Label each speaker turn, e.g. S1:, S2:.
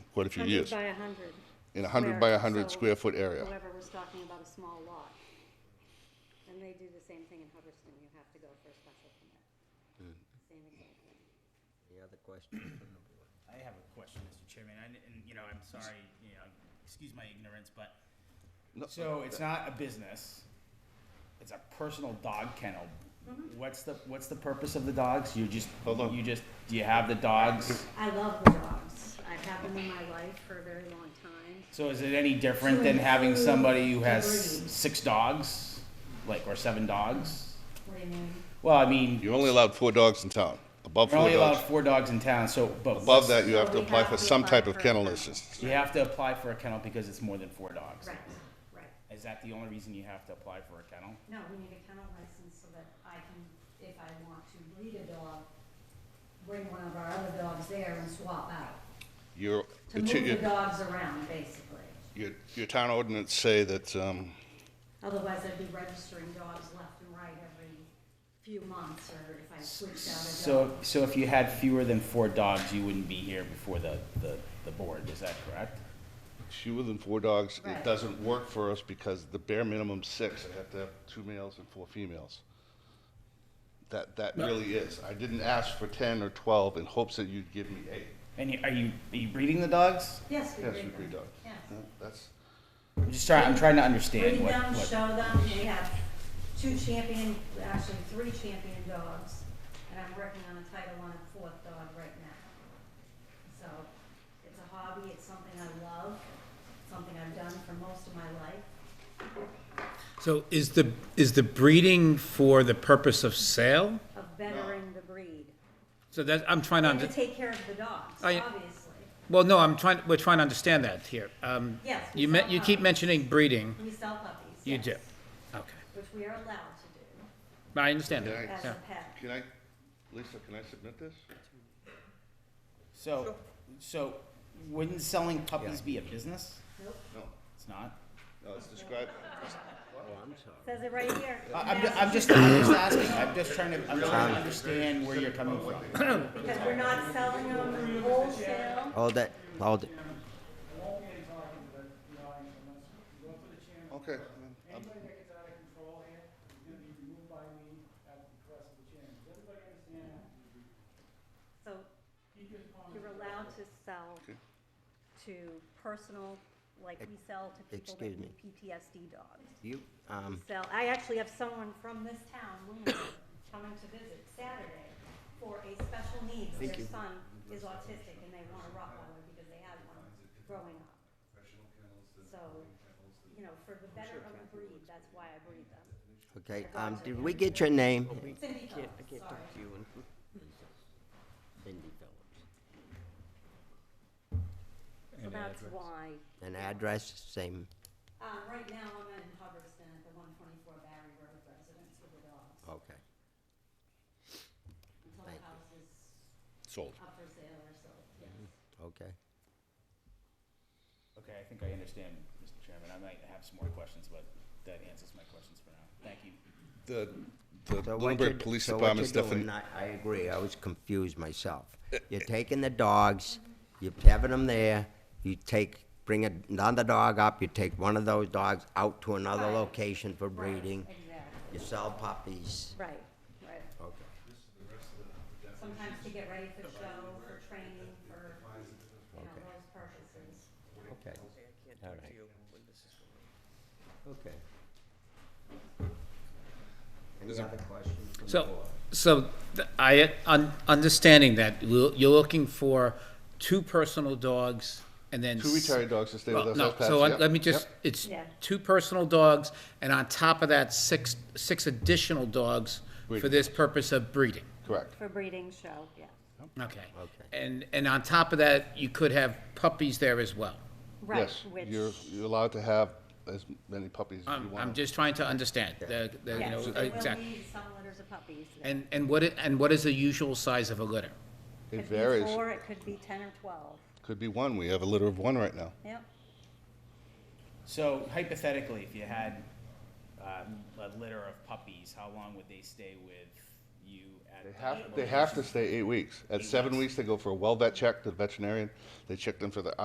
S1: quite a few years.
S2: Hundred by a hundred.
S1: In a hundred by a hundred
S2: so
S1: square foot area.
S2: Whoever was talking about a small lot. And they do the same thing in Hubbardston, you have to go for a special permit. Same exact thing.
S3: Any other questions from the board?
S4: I have a question, Mr. Chairman, and, and, you know, I'm sorry, you know, excuse my ignorance, but, so it's not a business, it's a personal dog kennel. What's the, what's the purpose of the dogs? You just,
S1: Mm-hmm. Hold on.
S4: you just, do you have the dogs?
S2: I love the dogs. I've had them in my life for a very long time.
S4: So is it any different than having somebody who has six dogs, like, or seven dogs?
S2: What do you mean?
S4: Well, I mean,
S1: You're only allowed four dogs in town, above
S4: you're
S1: four
S4: only allowed
S1: dogs.
S4: four dogs in town, so, but
S1: Above that, you
S2: So
S1: have to
S2: we
S1: apply
S2: have
S1: for
S2: to
S1: some
S2: apply
S1: type of
S2: for a
S1: kennel
S2: permit.
S1: license.
S4: you have to apply for a kennel because it's more than four dogs.
S2: Right, right.
S4: Is that the only reason you have to apply for a kennel?
S2: No, we need a kennel license so that I can, if I want to breed a dog, bring one of our other dogs there and swap out.
S1: Your,
S2: To
S1: the t-
S2: move the
S1: your-
S2: dogs around, basically.
S1: your, your town ordinance say that, um,
S2: Otherwise, I'd be registering dogs left and right every few months, or if I switched out a
S4: So,
S2: dog.
S4: so if you had fewer than four dogs, you wouldn't be here before the, the, the board, is that correct?
S1: fewer than four dogs, it
S2: Right.
S1: doesn't work for us because the bare minimum six, I have to have two males and four females. That, that really is. I didn't ask for ten or twelve in hopes that you'd give me eight.
S4: And you, are you, are you breeding the dogs?
S2: Yes, we
S1: Yes,
S2: breed
S1: we
S2: them.
S1: breed dogs.
S2: Yes.
S1: Yeah, That's,
S4: I'm just trying, I'm trying to understand
S2: Breed
S4: what,
S2: them,
S4: what.
S2: show them, we have two champion, actually, three champion dogs, and I'm working on a Title I fourth dog right now. So, it's a hobby, it's something I love, something I've done for most of my life.
S5: So is the, is the breeding for the purpose of sale?
S2: of bettering the breed.
S5: So that, I'm trying to,
S2: And to
S5: under-
S2: take care of the dogs,
S5: I-
S2: obviously.
S5: well, no, I'm trying, we're trying to understand that here. Um,
S2: Yes,
S5: You me, you keep
S2: somehow.
S5: mentioning breeding.
S2: We sell puppies.
S5: You
S2: yes,
S5: do. Okay.
S2: Which we are allowed to
S5: I understand
S1: can
S5: that.
S2: do as
S1: I,
S2: a pet.
S1: can I, Lisa, can I submit this?
S4: So, so wouldn't selling puppies be a business?
S2: Nope,
S1: No,
S4: It's not?
S1: no, it's described,
S3: Oh, I'm sorry.
S2: says it right here.
S4: I- I'm, ju- I'm just, I'm just asking, I'm just trying to, I'm trying to understand where you're coming from.
S2: Because we're not selling them wholesale.
S3: Hold it, hold it.
S1: okay.
S6: Anybody that gets out of control here is gonna be removed by me at the request of the chairman. Does everybody understand that?
S2: So you're allowed to sell
S1: Okay.
S2: to personal, like we sell to people that
S3: Excuse me.
S2: need PTSD dogs.
S3: You,
S2: We
S3: um,
S2: sell, I actually have someone from this town, Luna, coming to visit Saturday for a special needs. Their son is autistic and they want a Rottweiler because they had one growing up. So, you know, for the better of the breed, that's why I breed them.
S3: okay, um, did we get your name?
S2: Cindy Phillips, sorry.
S3: Cindy Phillips.
S2: So that's why,
S3: And address, same,
S2: um, right now I'm in Hubbardston at the one twenty-four Barry Road residence with the dogs.
S3: okay.
S2: Until the
S3: thank you.
S2: house is
S1: Sold.
S2: up for sale or sold, yes.
S3: Okay.
S4: Okay, I think I understand, Mr. Chairman. I might have some more questions, but that answers my questions for now. Thank you.
S1: The, the
S3: So what you're-
S1: Bloomberg Police
S3: so what
S1: Department's Uh,
S3: you're doing,
S1: definition.
S3: I I agree, I was confused myself. You're taking the dogs, you're having them there, you take, bring another dog up, you take one of those dogs out to another
S2: Right.
S3: location for breeding,
S2: Exactly,
S3: you sell puppies.
S2: right, right.
S3: Okay.
S2: sometimes to get ready for show, for training, for, you know,
S3: Okay.
S2: those purposes.
S3: Okay. All right. Okay. Any other questions from the
S5: So,
S3: board?
S5: so th- I, un- understanding that, you're you're looking for two personal dogs and then.
S1: Two
S5: s-
S1: retired dogs to stay with
S5: Well,
S1: us.
S5: no,
S1: that's passed,
S5: so I-
S1: yep,
S5: let me just,
S1: yep.
S5: it's
S2: Yeah.
S5: two personal dogs, and on top of that, six, six additional dogs for
S1: Breeding.
S5: this purpose of breeding.
S1: Correct.
S2: For breeding show, yeah.
S5: Okay.
S3: Okay.
S5: And, and on top of that, you could have puppies there as well.
S2: Right,
S1: Yes,
S2: which,
S1: You're, you're allowed to have as many puppies as you
S5: Um, I'm,
S1: want.
S5: I'm just trying to understand, the, the, you know,
S2: yes, there will
S5: exactly.
S2: be some litters of puppies. yeah.
S5: And, and what, i- and what is the usual size of a litter?
S1: It varies.
S2: Could be four, it could be ten or twelve,
S1: Could be one. We have a litter of one right now.
S2: yep.
S4: So hypothetically, if you had um, a litter of puppies, how long would they stay with you at?
S1: They
S4: the
S1: have, they
S4: location?
S1: have to stay eight weeks. At seven weeks, they go for a well vet check, to the veterinarian. They check them for the